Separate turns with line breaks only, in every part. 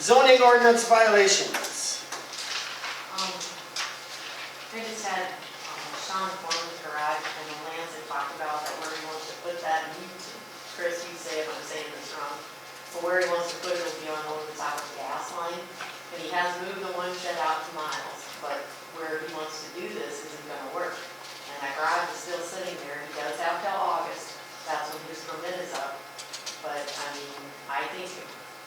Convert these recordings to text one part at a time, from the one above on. Zoning ordinance violations.
Um, We just had um, Sean Foreman's garage and the lands that talked about that where he wants to put that, and you, Chris, you say if I'm saying this wrong, but where he wants to put it will be on Old South Gas Line, and he has moved the one shed out to miles, but where he wants to do this isn't gonna work. And that garage is still sitting there, he does have till August, that's when his permit is up, but, I mean, I think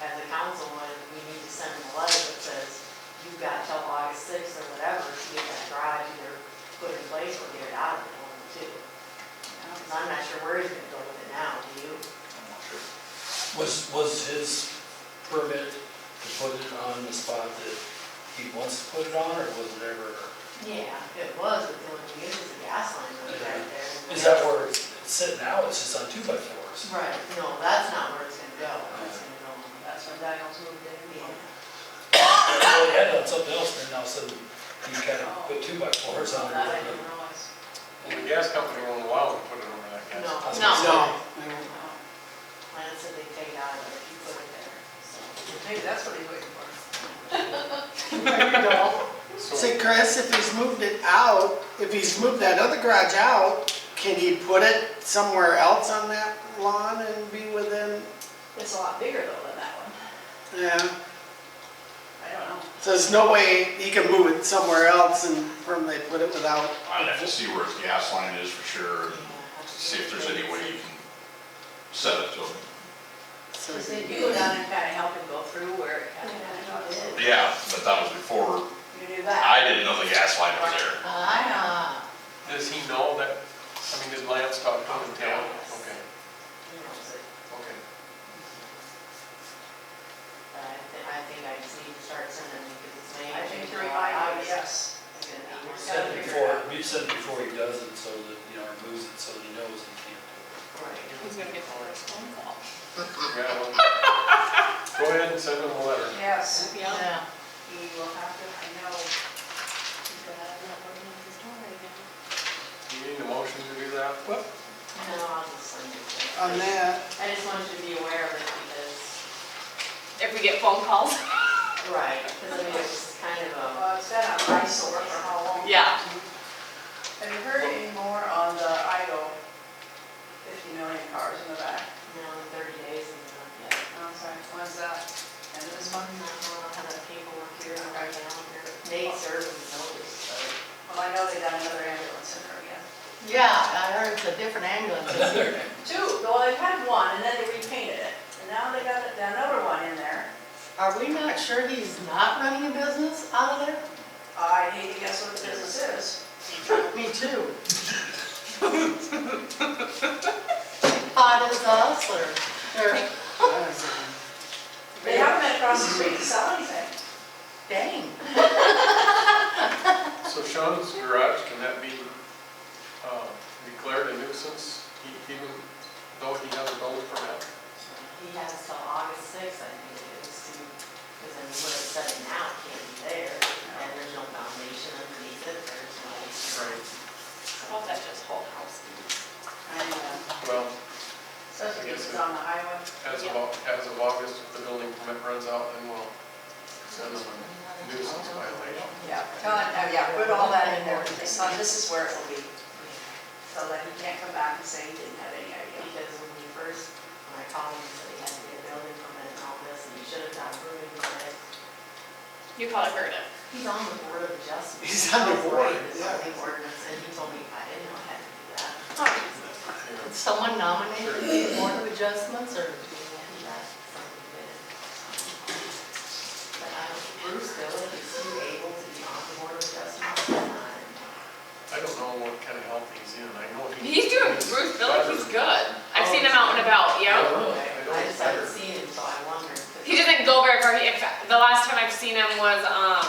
as a council, we need to send him a letter that says, you've got till August sixth or whatever to get that garage either put in place or get it out of it, one of the two. Because I'm not sure where he's gonna go with it now, do you?
Was, was his permit to put it on the spot that he wants to put it on, or was it ever?
Yeah. It was, but then when you use the gas line goes right there.
Is that where it's sitting now, it's just on two by fours?
Right, no, that's not where it's gonna go, it's gonna go, that's where Daniel's moved in.
Well, he had it on something else, and then all of a sudden, he kind of put two by fours on
That I
it.
didn't realize.
Well, The gas company won't allow them to put it over that gas.
No,
I was
no.
gonna
Lance said they take it out of it, if you put it there, so.
Maybe that's what he's waiting for.
So,
Say, Chris, if he's moved it out, if he's moved that other garage out, can he put it somewhere else on that lawn and be within,
It's a lot bigger though than that one.
yeah?
I don't know.
So there's no way he can move it somewhere else and firmly put it without,
I'd have to see where his gas line is for sure, and see if there's any way you can set it to him.
so.
Because then you go down and kind of help him go through where it kind of
Yeah.
Yeah, but that was before,
You do that.
I didn't know the gas line was there.
I, uh,
does he know that, I mean, did Lance talk to him and tell him? Okay,
you know, so-
okay.
But I thi- I think I just need to start sending because it's May.
I think you're
July,
right,
August.
yes.
It's gonna be
We
more
said
stuff.
it before, we said it before he does it, so that, you know, or moves it, so he knows he can't do
Who's gonna get the first phone call? Go ahead and send him a letter.
Yes.
Yeah.
He will have to, I know.
You need a motion to do that? Well,
No, I'll just send it to you.
On that,
I just want you to be aware of it because,
If we get phone calls?
right, because I mean, it's kind of a,
Well, it's been an eyesore for how long?
Yeah.
Have you heard any more on the idle fifty million cars in the back?
you know, thirty days and, uh, yeah.
Oh, sorry, when's that? End of
This
this
one, I
month?
don't know how that paperwork here, I'm writing down here. Nate served and noticed, so.
Well, I know they got another ambulance in there again.
Yeah, I heard it's a different ambulance.
it. Another,
Two, well, they had one, and then they repainted it, and now they got another one in there.
Are we not sure he's not running a business out of there?
I hate to guess what the business is.
Me too. Hot as us or, or
They haven't been across the street to sell anything.
dang.
so Sean's garage, can that be uh, declared a nuisance, e- even though he has a building permit?
He has till August sixth, I think it is, to, because then what it's setting out can't be there, and there's no foundation underneath it, there's no.
Well, that's just whole house.
Well,
Says it was on the highway.
as of, Au- as of August, if the building permit runs out, then we'll send him a nuisance violation.
Yeah, tell him, uh, yeah, put all that in there, it's not, this is where it will be, so that he can't come back and say he didn't have any idea.
Because when we first, when I called him, he said he had to get a building permit and all this, and he should have gotten moving on it.
You probably heard it.
He's on the board of adjustment.
He's on the board, yeah.
Zoning ordinance, and he told me I didn't know I had to do that.
Yeah.
Someone nominated
to
the board of adjustments or? But I don't, um, Bruce Dillon, is he able to be on the board of adjustments or not?
I don't know what kind of health he's in, I know he.
He's doing, Bruce Billick, he's good. I've seen him out and about, yeah.
Oh,
I just haven't seen him, so I wonder.
He doesn't go very far. He- In fact, the last time I've seen him was, um,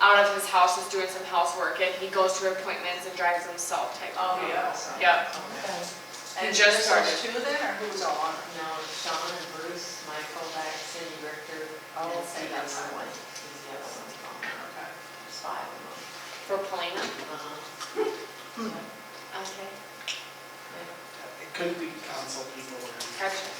out of his house, just doing some housework, and he goes to appointments and drives himself type
Oh,
of thing.
so.
Yep.
Okay.
And
He
just
just started.
those two then, or who was all on it?
No, Sean and Bruce, Michael, back, Cindy, Richter,
Oh,
and Steve,
okay,
that's
that's
the one.
fine.
He's the other one's gone.
Okay.
There's five of them.
For Polina.
Uh-huh.
Okay.
it could be council people or.
Gotcha.